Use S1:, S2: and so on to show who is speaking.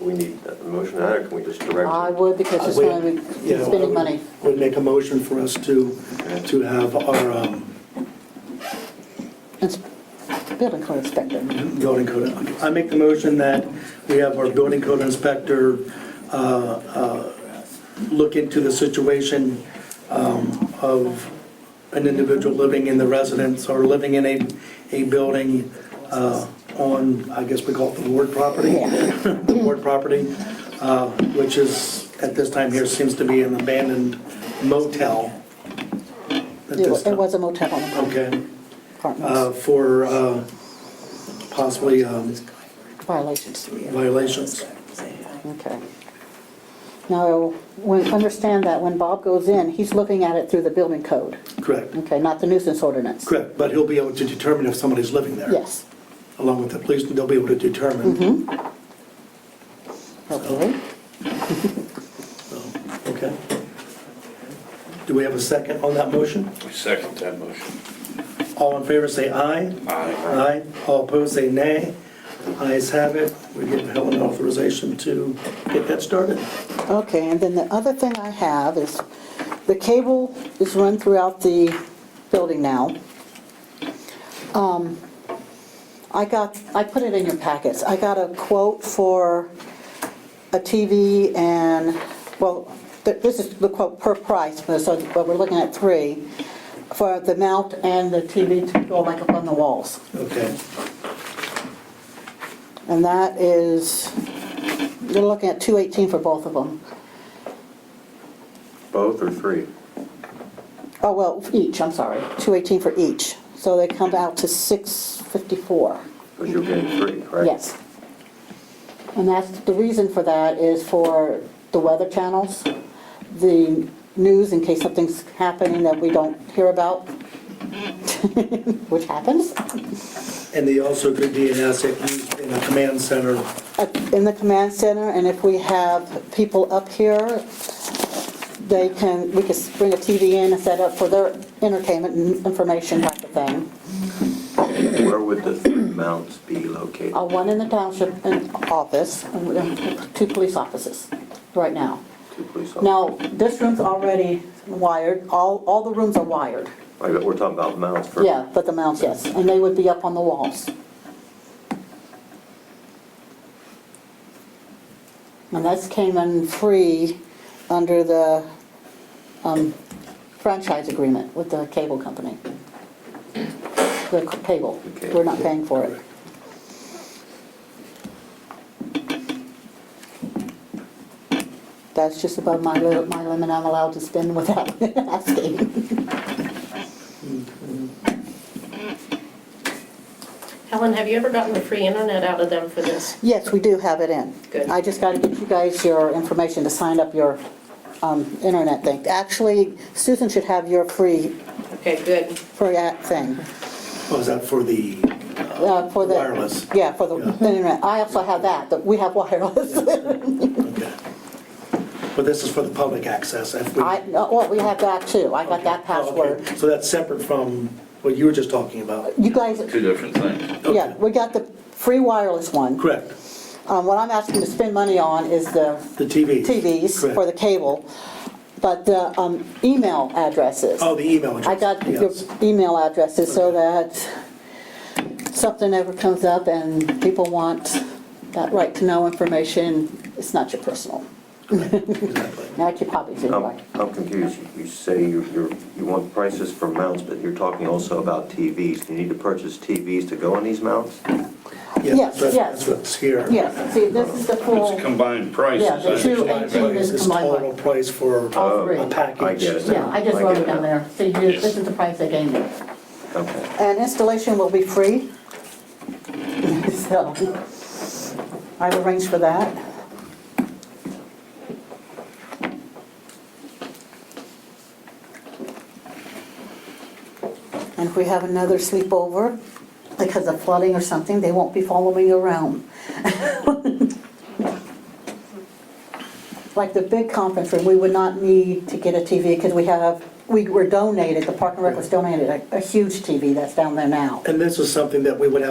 S1: we need a motion on it, or can we just direct?
S2: I would, because
S3: Uh,
S2: it's going to be
S3: Yeah, I
S2: spending
S3: would-
S2: money.
S3: Would make a motion for us to, to have our um,
S2: It's building code inspector.
S3: building code. I make the motion that we have our building code inspector uh, uh, look into the situation um, of an individual living in the residence or living in a, a building uh, on, I guess we call it the ward property. The ward property, uh, which is, at this time here, seems to be an abandoned motel. at
S2: It
S3: this
S2: wa- it
S3: time.
S2: was a motel on the
S3: Okay uh,
S2: apartments,
S3: for uh, possibly um,
S2: violations.
S3: violations.
S2: Okay. Now, when, understand that when Bob goes in, he's looking at it through the building code,
S3: Correct,
S2: okay, not the nuisance ordinance.
S3: correct, but he'll be able to determine if somebody's living there.
S2: Yes,
S3: Along with the police, they'll be able to determine.
S2: hopefully.
S3: So, Okay. Do we have a second on that motion?
S4: I second that motion.
S3: All in favor, say aye.
S4: Aye.
S3: All opposed, say nay. Ayes have it. We give Helen authorization to get that started.
S2: Okay, and then the other thing I have is, the cable is run throughout the building now. Um, I got, I put it in your packets, I got a quote for a TV and, well, th- this is the quote per price, but so, but we're looking at three, for the mount and the TV to go like up on the walls.
S3: Okay.
S2: And that is, you're looking at 218 for both of them.
S1: Both or three?
S2: Oh, well, each, I'm sorry, 218 for each. So they come out to 654.
S1: Because you're getting three, right?
S2: Yes. And that's, the reason for that is for the weather channels, the news, in case something's happening that we don't hear about, which happens,
S3: And they also could be an asset used in a command center.
S2: uh, in the command center, and if we have people up here, they can, we could bring a TV in and set up for their entertainment and information type of thing.
S1: Where would the three mounts be located?
S2: Uh, One in the township and office, and we have two police offices right now.
S1: Two police officers?
S2: Now, this room's already wired, all, all the rooms are wired.
S1: Wait, but we're talking about mounts for.
S2: Yeah, but the mounts, yes, and they would be up on the walls. And that's came in free under the um, franchise agreement with the cable company. The cable,
S1: Okay.
S2: we're not paying for it. That's just above my li- my limit I'm allowed to spend without asking.
S5: Helen, have you ever gotten the free internet out of them for this?
S2: Yes, we do have it in.
S5: Good.
S2: I just got to get you guys your information to sign up your um, internet thing. Actually, Susan should have your free,
S5: Okay, good.
S2: free app thing.
S3: Oh, is that for the?
S2: uh, for the-
S3: Wireless.
S2: Yeah, for the
S3: Yeah.
S2: internet. I also have that, but we have wireless.
S3: Okay. But this is for the public access. if we- Oh,
S2: I, no, well, we have that too. I got that password.
S3: Okay, So that's separate from what you were just talking about?
S2: You guys,
S4: Two different things.
S2: yeah, we got the free wireless one.
S3: Correct,
S2: Um, What I'm asking to spend money on is the
S3: the TV.
S2: TVs for the
S3: Correct.
S2: cable, but the um, email addresses.
S3: Oh, the email address.
S2: I got your
S3: yes.
S2: email addresses so that something ever comes up and people want that right to know information, it's not your personal.
S3: Exactly. Oh.
S2: Not your copies
S1: I'm,
S2: anyway.
S1: I'm confused. You- You say you- you're, you want prices for mounts, but you're talking also about TVs. Do you need to purchase TVs to go on these mounts?
S3: Yeah,
S2: Yes, yes.
S3: that's- That's what's here.
S2: Yes, see, this is the
S4: It's
S2: full,
S4: combined prices.
S2: Yeah, the two
S4: I
S2: and two
S4: understand.
S2: is
S3: This total
S2: combined.
S3: price for
S2: All three.
S3: a package.
S1: I get it.
S2: Yeah, I just
S1: I
S2: wrote
S1: get
S2: it down there. See, here, this is the price they gave me.
S1: Okay.
S2: And installation will be free. So I've arranged for that. And if we have another sleepover because of flooding or something, they won't be following you around. Like the big conference room, we would not need to get a TV because we have, we were donated, the Park and Rec was donated a a huge TV that's down there now.
S3: And this is something that we would have